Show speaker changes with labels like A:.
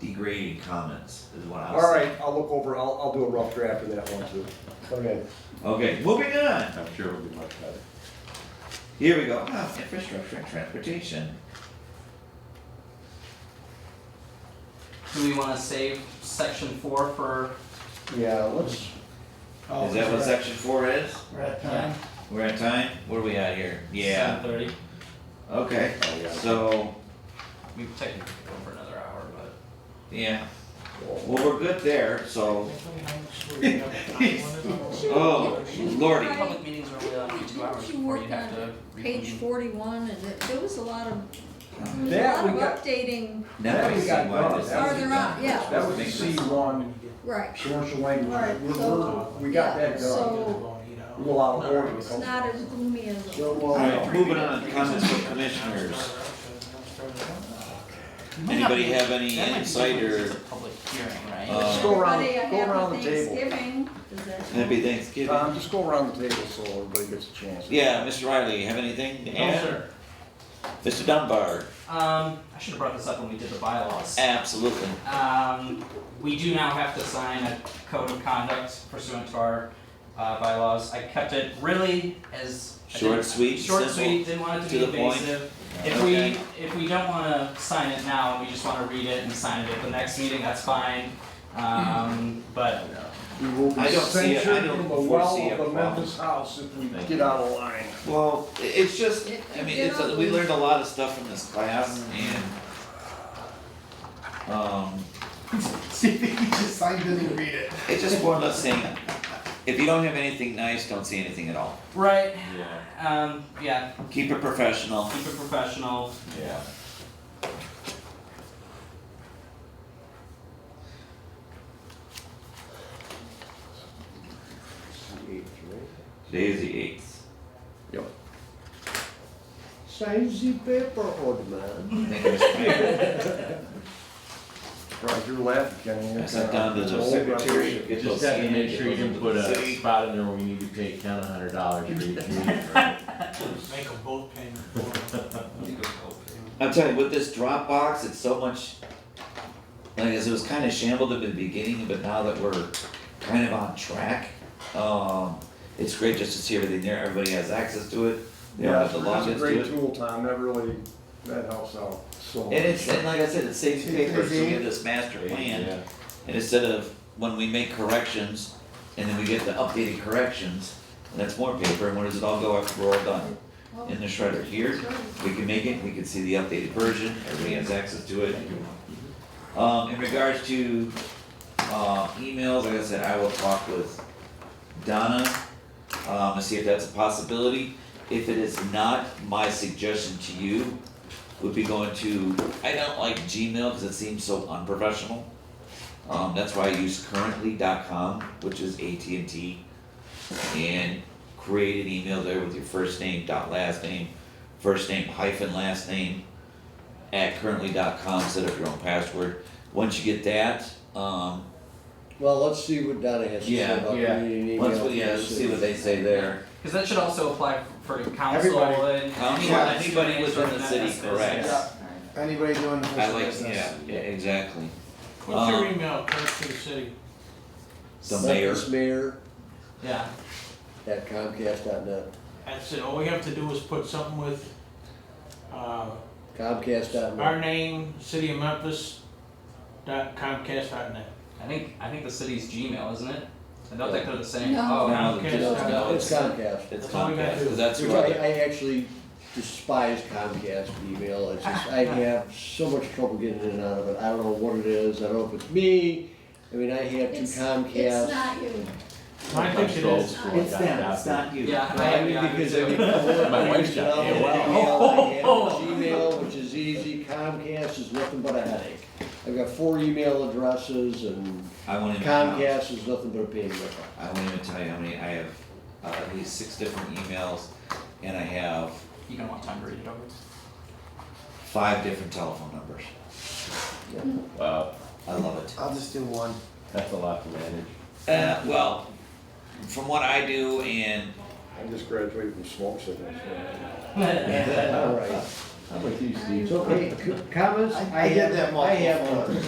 A: degrading comments is what I was
B: All right, I'll look over, I'll, I'll do a rough draft of that one too.
C: Okay,
A: Okay, moving on.
C: I'm sure it'll be much better.
A: Here we go. Ah, infrastructure and transportation.
D: Do we wanna save section four for,
C: Yeah, let's,
E: Oh,
A: Is that what section four is?
E: We're at time.
A: We're at time? What are we at here? Yeah,
D: Seven thirty?
A: okay.
C: Oh, yeah.
A: So,
D: We technically could go for another hour, but.
A: yeah, well, we're good there, so, oh, lordy.
D: Public meetings are only on for two hours
F: Didn't you
D: before
F: work
D: you have to. reconvene.
F: Page forty-one, and it- there was a lot of, there
B: That
F: was a
B: we
F: lot of
B: got,
F: updating
A: Now I
B: That we
A: see
B: got
A: why
B: done.
A: this.
B: That was-
A: is
F: Farther up,
A: done.
F: yeah.
B: that was the
A: Makes
B: C
A: sense.
B: one
F: Right,
B: commercial language,
F: Right,
B: we're,
F: so-
B: we're, we got
F: yeah,
B: that done.
F: so-
B: A little out of order.
F: it's not as gloomy as.
B: So, uh, well,
A: All right, moving on, comments from commissioners.
D: Might not
A: Anybody
D: be-
A: have any
D: that might be
A: insight
D: different 'cause
A: or
D: it's a Public hearing, right?
A: Uh,
B: Just go around,
F: Everybody,
B: go
F: a
B: around the
F: happy
B: table.
F: Thanksgiving, Does that-
A: happy Thanksgiving?
B: Tom, just go around the table so everybody gets a chance.
A: Yeah, Mr. Riley, you have anything to
D: No,
A: add?
D: sir.
A: Mr. Dunbar,
D: Oh, Um, I should have brought this up when we did the bylaws.
A: absolutely.
D: Um, we do now have to sign a code of conduct pursuant to our uh, bylaws. I kept it really as. I
A: Short,
D: didn't-
A: sweet,
D: Short,
A: simple,
D: sweet, didn't want it
A: to
D: to be
A: the point.
D: invasive. If
A: Okay.
D: we, if we don't wanna sign it now, we just wanna read it and sign it at the next meeting, that's fine. Um, but
B: We will be
A: I don't see it. I
B: censured
A: don't
B: in the well
A: foresee a
B: of the
A: problem.
B: Memphis house if we
A: Thank
B: get out of line.
A: Well, i- it's just,
F: It-
A: I mean,
F: it
A: it's, a- we learned a lot of stuff from this class and, um,
E: See if he just signed it and read it.
A: it's just more or less saying, if you don't have anything nice, don't say anything at all.
D: Right,
C: yeah,
D: um, yeah,
A: Keep it professional.
D: keep it professional.
C: yeah.
A: Today's the eighth.
C: Signs the paper, old man.
A: Thank you, Mr. Mayor.
B: Roger, you're laughing, Kenny. You're
A: I sent
B: kinda-
A: down to the
B: Old
A: secretary. get
G: Just
A: those
G: have to
A: scanned,
G: make
A: get
G: sure you
A: those
G: didn't
A: into
G: put
A: the
G: a
A: city.
G: spot in there where we need to pay ten, a hundred dollars for each
E: Make
G: meeting.
E: them both pay for
A: I'm telling you, with this Dropbox, it's so much, like, as it was kinda shambled at the beginning, but now that we're kind of on track, um, it's great just to see everything there, everybody has access to it, they don't
B: Yeah,
A: have
B: it's
A: to
B: a
A: log into
B: great
A: it.
B: tool, Tom, that really, that helps out so much.
A: And it's, and like I said, it saves paper, so we have this master plan,
G: Yeah.
A: and instead of when we make corrections, and then we get the updated corrections, and that's more paper, and where does it all go after we're all done?
F: Oh,
A: In the shredder here, we can make it, we can see the updated version, everybody has access to it. Um, in regards to, uh, emails, like I said, I will talk with Donna, um, and see if that's a possibility. If it is not, my suggestion to you would be going to, I don't like Gmail because it seems so unprofessional. Um, that's why I use currently.com, which is AT&T, and create an email there with your first name dot last name, first name hyphen last name at currently.com. Set up your own password. Once you get that, um,
H: Well, let's see what Donna has to
A: Yeah,
H: say about
C: yeah.
H: community email.
A: once we yeah, let's see what they say there.
D: Cause that should also apply for council
C: Everybody.
D: and.
A: Council,
D: Yeah.
A: anybody within the city,
D: Business.
A: correct.
C: Yeah.
E: Anybody doing
A: I like yeah, yeah exactly.
E: What's your
A: Um,
E: email, Clerk to the City?
A: The mayor.
H: mayor
D: Yeah,
H: at comcast.net,
E: That's it, all we have to do is put something with, uh, our
H: comcast.net.
E: name, City of Memphis, dot Comcast dot net.
D: I think, I think the city's Gmail, isn't it? I don't think they're the same.
F: No.
D: Oh,
A: Now
D: no.
A: the
E: Okay.
A: just
H: No,
A: now
H: it's
A: it's
H: Comcast,
A: it's
E: That's all we gotta
A: Comcast
E: do.
A: 'cause that's
H: which
A: who I-
H: I, I actually despise Comcast email, it's just, I have so much trouble getting in and out of it, I don't know what it is, I don't know if it's me, I mean, I have two
F: It's, it's
H: Comcast.
F: not you.
E: I think it is.
F: It's
G: them, it's not.
A: you.
D: Yeah, I
H: I
D: have,
H: mean,
D: yeah, me
H: because
D: too.
H: I mean, I want
G: My
H: to
G: wife's
H: use it
G: got
H: on the
G: AOL.
H: email, I have Gmail, which is easy, Comcast is nothing but a headache. I've got four email addresses and
A: I won't even count.
H: Comcast is nothing but a pain in the butt.
A: I won't even tell you how many I have. Uh, at least six different emails, and I have
D: You don't want time to read it over.
A: five different telephone numbers.
G: Wow,
A: I love it.
E: I'll just do one.
G: that's a lot to manage.
A: Uh, well, from what I do, and
B: I just graduated from smoke signals.
H: All right,
G: How about you, Steve?
H: so, hey, c- comments?
C: I did that
H: I
C: multiple
H: have,
C: times.